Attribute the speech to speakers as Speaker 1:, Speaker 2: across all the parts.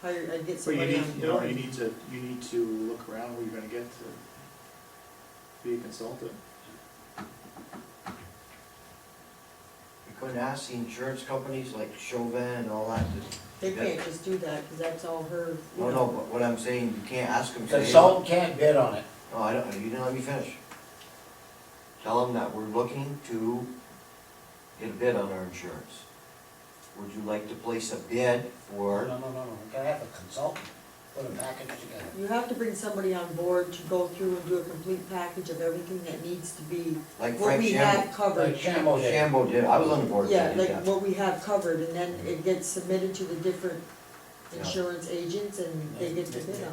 Speaker 1: hire, I'd get
Speaker 2: But you
Speaker 1: somebody
Speaker 2: need,
Speaker 1: on
Speaker 2: you know,
Speaker 1: board.
Speaker 2: you need to, you need to look around where you're gonna get to be a consultant.
Speaker 3: You couldn't ask the insurance companies like Chauvin and all that, to-
Speaker 1: They can't just do that, because that's all her, you
Speaker 2: Oh,
Speaker 3: no, no,
Speaker 1: know.
Speaker 3: but what I'm saying, you can't ask them. say,
Speaker 4: Consultant can't bid on it.
Speaker 3: No, I don't, you didn't let me finish. Tell them that we're looking to get a bid on our insurance. Would you like to place a bid
Speaker 4: No,
Speaker 3: for?
Speaker 4: no, no, no, we gotta have a consultant, put a package together.
Speaker 1: You have to bring somebody on board to go through and do a complete package of everything that needs to be,
Speaker 3: Like
Speaker 1: what
Speaker 3: Frank
Speaker 1: we
Speaker 3: Shambo,
Speaker 1: have
Speaker 4: Like
Speaker 1: covered.
Speaker 4: Shambo did.
Speaker 3: Shambo did, I was on the board. when
Speaker 1: Yeah,
Speaker 3: he did
Speaker 1: like
Speaker 3: that.
Speaker 1: what we have covered, and then it gets submitted to the different
Speaker 3: Yeah.
Speaker 1: insurance agents, and they get to bid on it.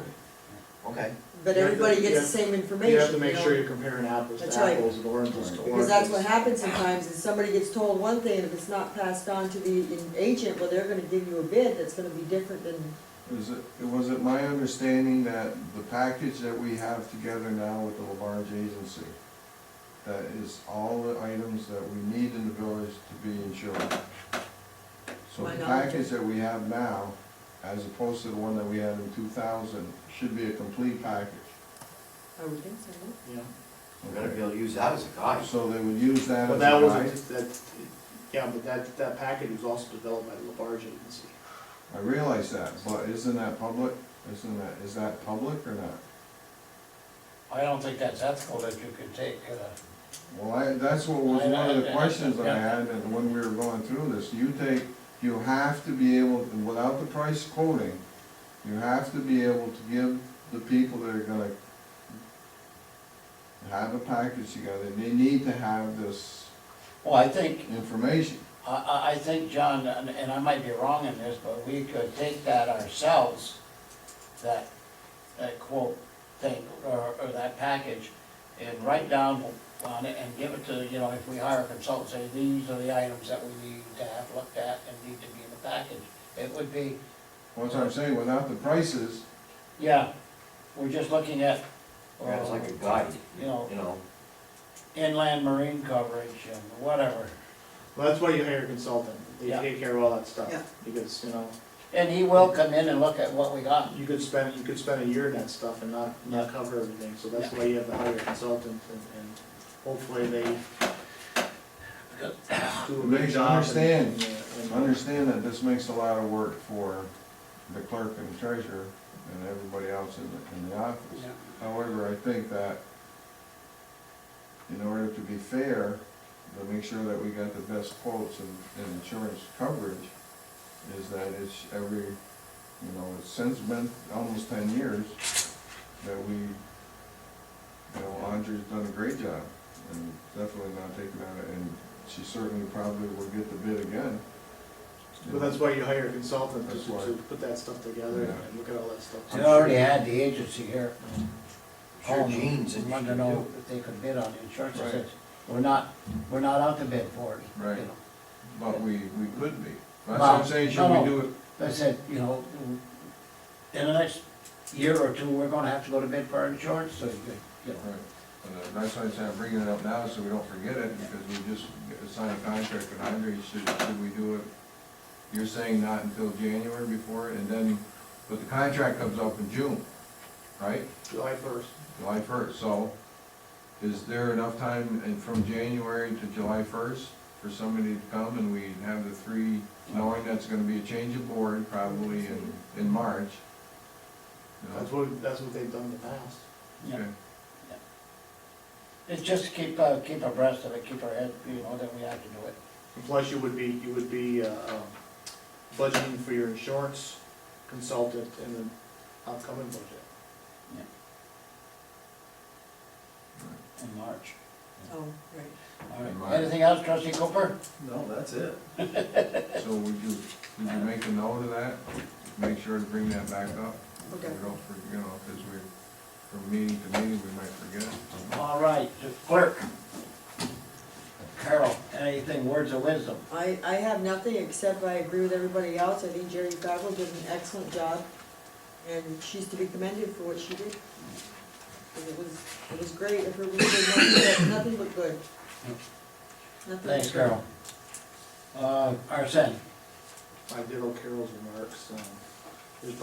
Speaker 3: Okay,
Speaker 1: But
Speaker 2: You have to-
Speaker 1: everybody
Speaker 2: you
Speaker 1: gets the
Speaker 2: have-
Speaker 1: same information,
Speaker 2: You
Speaker 1: you
Speaker 2: have to make
Speaker 1: know?
Speaker 2: sure you're comparing apples
Speaker 1: That's
Speaker 2: to
Speaker 1: right.
Speaker 2: apples and oranges to oranges.
Speaker 1: Because that's what happens sometimes, is somebody gets told one thing, and if it's not passed on to the in- agent, well, they're gonna give you a bid that's gonna be different than,
Speaker 5: Is it, was it my understanding that the package that we have together now with the Labarge Agency, that is all the items that we need in the village to be insured? So
Speaker 1: My
Speaker 5: the
Speaker 1: knowledge.
Speaker 5: package that we have now, as opposed to the one that we had in two thousand, should be a complete package.
Speaker 1: I would think so, no?
Speaker 2: Yeah,
Speaker 3: we're gonna be able to use that as a guide.
Speaker 5: So they would use that
Speaker 2: but
Speaker 5: as a
Speaker 2: that
Speaker 5: guide?
Speaker 2: wasn't, that, yeah, but that, that package was also developed by the Labarge Agency.
Speaker 5: I realize that, but isn't that public? Isn't that, is that public or not?
Speaker 4: I don't think that's ethical that you can take, uh,
Speaker 5: Well, I, that's what was
Speaker 4: I- I-
Speaker 5: one of the
Speaker 4: I-
Speaker 5: questions that I
Speaker 4: yeah.
Speaker 5: had, and when we were going through this, you take, you have to be able, without the price quoting, you have to be able to give the people that are gonna have a package together, they need to have this
Speaker 4: well, I think,
Speaker 5: information.
Speaker 4: I, I, I think, John, and and I might be wrong in this, but we could take that ourselves, that, that quote thing, or, or that package, and write down on it and give it to, you know, if we hire a consultant, say, these are the items that we need to have looked at and need to be in the package. It would be,
Speaker 5: What's I'm saying, without the prices,
Speaker 4: yeah, we're just looking at,
Speaker 3: Yeah, it's
Speaker 4: uh,
Speaker 3: like a guide,
Speaker 4: you know,
Speaker 3: you know?
Speaker 4: inland marine coverage and whatever.
Speaker 2: Well, that's why you hire a consultant, they
Speaker 4: Yeah.
Speaker 2: take care of all that stuff,
Speaker 1: Yeah.
Speaker 2: because, you know,
Speaker 4: And he will come in and look at what we got.
Speaker 2: you could spend, you could spend a year in that stuff and not, not cover everything, so that's why you have to hire a consultant, and, and hopefully they do a
Speaker 5: Make
Speaker 2: good
Speaker 5: you
Speaker 2: job. and-
Speaker 5: understand.
Speaker 2: and- and-
Speaker 5: understand that this makes a lot of work for the clerk and treasurer and everybody else in the, in the office. However, I think that in order to be fair, to make sure that we got the best quotes and, and insurance coverage, is that it's every, you know, it's since been almost ten years that we, you know, Andre's done a great job and definitely not taking out it, and she certainly probably will get the bid again.
Speaker 2: But that's why you hire a consultant, to,
Speaker 5: That's why.
Speaker 2: to put that stuff together
Speaker 5: Yeah.
Speaker 2: and look at all that stuff.
Speaker 4: They already had the agency here.
Speaker 3: Sure, Gene's
Speaker 4: and Wanted to
Speaker 3: interested
Speaker 4: know
Speaker 3: too.
Speaker 4: if they could bid on the insurance. They
Speaker 5: Right.
Speaker 4: said, we're not, we're not out to bid for it. you
Speaker 5: Right.
Speaker 4: know.
Speaker 5: But we, we could be. That's what
Speaker 4: Well,
Speaker 5: I'm saying, should
Speaker 4: no,
Speaker 5: we do it?
Speaker 4: They said, you know, in the next year or two, we're gonna have to go to bid for our insurance, so you could, you know.
Speaker 5: Right, and uh, that's why I said I'm bringing it up now, so we don't forget it, because we just signed a contract with Andre, should, should we do it? You're saying not until January before, and then, but the contract comes up in June, right?
Speaker 2: July first.
Speaker 5: July first, so is there enough time in, from January to July first for somebody to come and we have the three, knowing that's gonna be a change of board probably in, in March? No?
Speaker 2: That's what, that's what they've done in the past.
Speaker 4: Yeah.
Speaker 5: Okay.
Speaker 4: It's just to keep, uh, keep abreast of it, keep our head, you know, that we have to do it.
Speaker 2: And Plus, you would be, you would be, uh, um, budgeting for your insurance consultant in the upcoming budget.
Speaker 4: in March.
Speaker 1: Oh, right.
Speaker 4: All
Speaker 5: In
Speaker 4: right,
Speaker 5: March.
Speaker 4: anything else, trustee Cooper?
Speaker 6: No, that's it.
Speaker 5: So would you, would you make a note of that? Make sure to bring that back up?
Speaker 1: Okay.
Speaker 5: We don't, for- you know, because we, from meeting to meeting, we might forget.
Speaker 4: All right, the clerk. Carol, anything, words of wisdom?
Speaker 1: I, I have nothing, except I agree with everybody else, I think Jerry Gavel did an excellent job, and she's to be commended for what she did. And it was, it was great, if her we did nothing, but- nothing but good. Nothing but
Speaker 4: Thanks,
Speaker 1: good.
Speaker 4: Carol. Uh, Arson,
Speaker 2: I did all Carol's remarks, um,